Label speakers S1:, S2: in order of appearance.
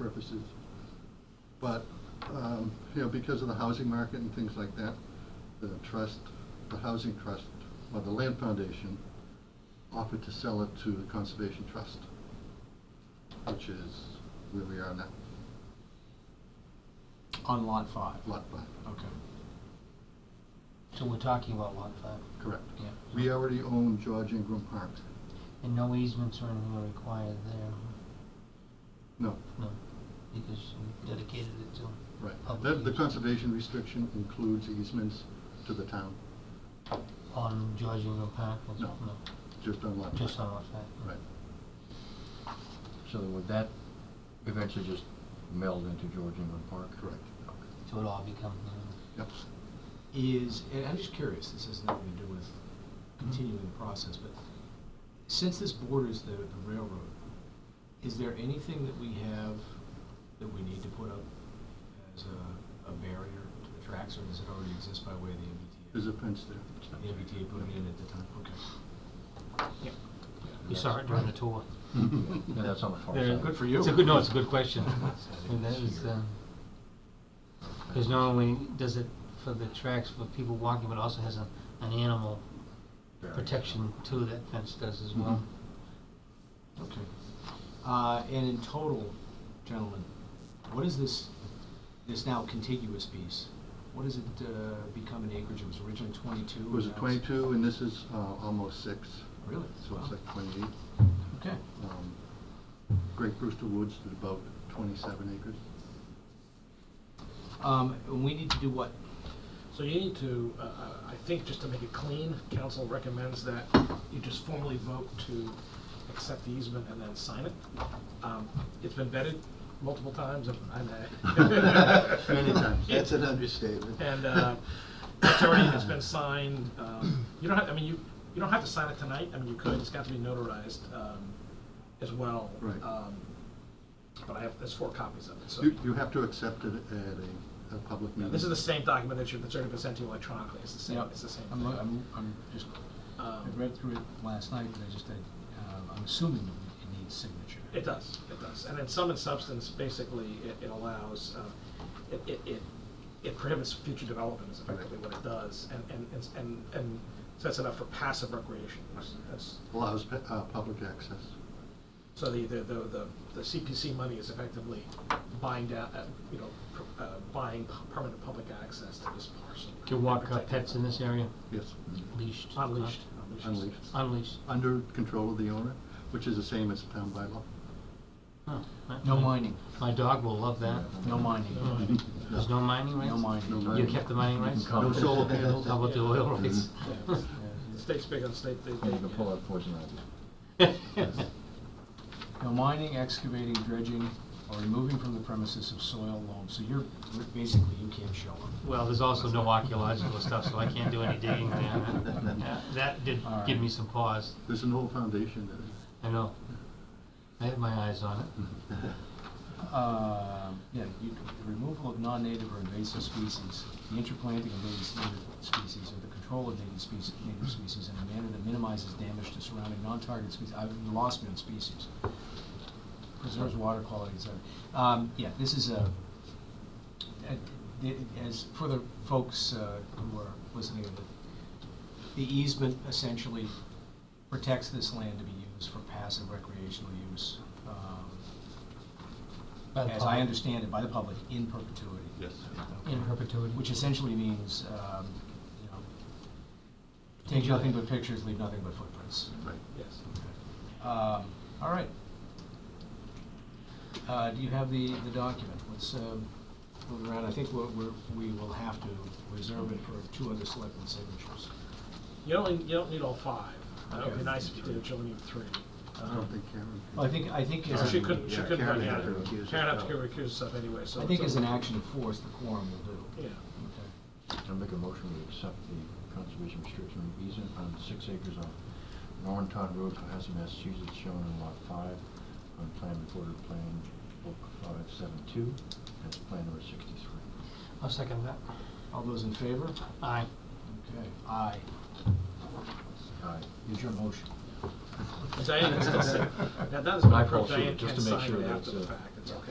S1: purposes. But, um, you know, because of the housing market and things like that, the trust, the housing trust, or the land foundation offered to sell it to the Conservation Trust, which is where we are now,
S2: On lot five?
S1: Lot 5.
S2: Okay.
S3: So we're talking about lot five?
S1: Correct.
S3: Yeah.
S1: We already own George Ingram Park.
S3: And no easements or anything are required there,
S1: No,
S3: no, because you dedicated it to.
S1: right. The,
S3: public
S1: the
S3: use
S1: conservation restriction includes easements to the town,
S3: On George Ingram Park, was-
S1: No. just on Lot 5.
S3: just on lot five. yeah.
S1: Right.
S4: So would that eventually just meld into George England Park?
S1: Correct.
S3: So it all becomes, you know,
S1: Yep.
S2: Is, and I'm just curious, this has nothing to do with continuing the process, but since this borders the the railroad, is there anything that we have that we need to put up as a, a barrier to the tracks, or does it already exist by way of the MBTA?
S1: There's a fence there.
S2: The MBTA put it in at the time, okay.
S3: we saw it during the tour.
S4: Yeah, that's on the far
S3: There-
S4: side.
S2: Good for you.
S3: It's a good, no, it's a good question.
S2: That's-
S3: And that is,
S2: here.
S3: um, Because not only does it for the tracks for people walking, but also has a, an animal
S4: Very.
S3: protection too, that fence does as well.
S2: Mm-hmm. Okay. Uh, and in total, gentlemen, what is this, this now contiguous piece? What does it, uh, become in acreage? It was originally twenty-two?
S1: It was a
S2: now it's-
S1: 22, and this is uh, almost 6.
S2: Really?
S1: So it's
S2: Wow.
S1: like 28.
S2: Okay.
S1: Um, Great Brewster Woods did about 27 acres.
S2: Um, and we need to do what?
S5: So you need to, uh, uh, I think, just to make it clean, council recommends that you just formally vote to accept the easement and then sign it. Um, It's been vetted multiple times, and I-
S1: Many times. That's an understatement.
S5: and uh, it's already, it's been signed. um, You don't have, I mean, you, you don't have to sign it tonight, I mean, you could, it's got to be notarized um, as well.
S1: Right.
S5: Um, But I have, there's four copies of it, so.
S1: You you have to accept it at a, a public
S5: Yeah,
S1: meeting.
S5: This is the same document that you, that's already been sent to you electronically, it's the same, it's the same.
S2: I'm,
S5: thing.
S2: lo- I'm, I'm just, I
S5: Um,
S2: read through it last night, and I just, I, um, I'm assuming it needs signature.
S5: It does, it does. And in sum and substance, basically, it, it allows, um, it, it, it- it prohibits future development is effectively what it does, and, and, it's- and, and sets it up for passive recreation. use. That's,
S1: Allows pe- uh, public access.
S5: so the, the, the, the- the CPC money is effectively buying down, uh, you know, pr- uh, buying p- permanent public access to this parcel.
S3: Can walk uh,
S5: Protect
S3: pets in this area,
S1: Yes.
S3: leashed. uh,
S5: Unleashed.
S1: Unleashed.
S3: Unleashed.
S1: Under control of the owner, which is the same as town bylaw.
S3: Huh, my-
S2: No
S3: my-
S2: mining,
S3: My dog will love that.
S2: no mining.
S3: Mm. There's no mining rights?
S2: No mining.
S1: No
S3: You
S1: mining.
S3: kept the mining rights?
S4: No solar
S1: panels.
S3: How about the oil rights?
S5: Yeah. The state's big on state, they,
S4: You
S5: they.
S4: can pull out poison ivy.
S2: No mining, excavating, dredging, or removing from the premises of soil loam, so you're, basically, you can't show them.
S3: Well, there's also no archaeological stuff, so I can't do any digging there. Uh, That did
S2: All right.
S3: give me some pause,
S1: There's an old foundation there.
S3: I know. I had my eyes on it.
S2: Mm-hmm. Uh, yeah, you, the removal of non-native or invasive species, the interplanting of native native species, or the control of native species, native species in a manner that minimizes damage to surrounding non-target species, I've lost me on species. Preserves water quality, et cetera. Um, yeah, this is a, a- it- as, for the folks, uh, who are listening, to the- the easement essentially protects this land to be used for passive recreational use. Um,
S3: By the
S2: as
S3: public.
S2: I understand it, by the public in perpetuity.
S1: Yes.
S3: In perpetuity.
S2: Which essentially means, um, you know, take nothing but pictures, leave nothing but footprints.
S1: Right.
S5: Yes.
S2: Um, All right. Uh, Do you have the, the document? Let's um, move around. I think we're, we're- we will have to reserve it for two other selectmen's signatures.
S5: You don't, you don't need all five. That would
S2: Okay.
S5: be nice if you did, you only need three.
S1: I don't think Karen.
S2: Uh-huh. Well, I think, I think, as
S5: So She
S2: a-
S5: couldn't, she
S1: yeah,
S5: couldn't
S1: Karen
S5: run
S1: had
S5: out.
S1: to recuse
S5: Karen had to
S1: herself.
S5: recuse herself anyway, so.
S2: I think
S5: it's
S2: as an
S5: okay.
S2: action of force, the quorum will do.
S5: Yeah.
S2: Okay.
S4: I'll make a motion to accept the conservation restriction easement on six acres of Norrentown Road, Cohasset, Massachusetts, shown in lot five on plan recorded plan book five seven two. That's plan number sixty-three.
S3: I'll second that.
S2: All those in favor?
S3: Aye.
S2: Okay. Aye.
S4: Aye.
S2: Is your motion?
S5: Diane can still say, now that is
S4: I
S5: my
S4: call
S5: problem,
S4: shoot,
S5: Diane
S4: just
S5: can't
S4: to make
S5: sign
S4: sure
S5: it
S4: that
S5: after
S4: it's,
S5: the
S4: uh,
S5: fact, it's okay.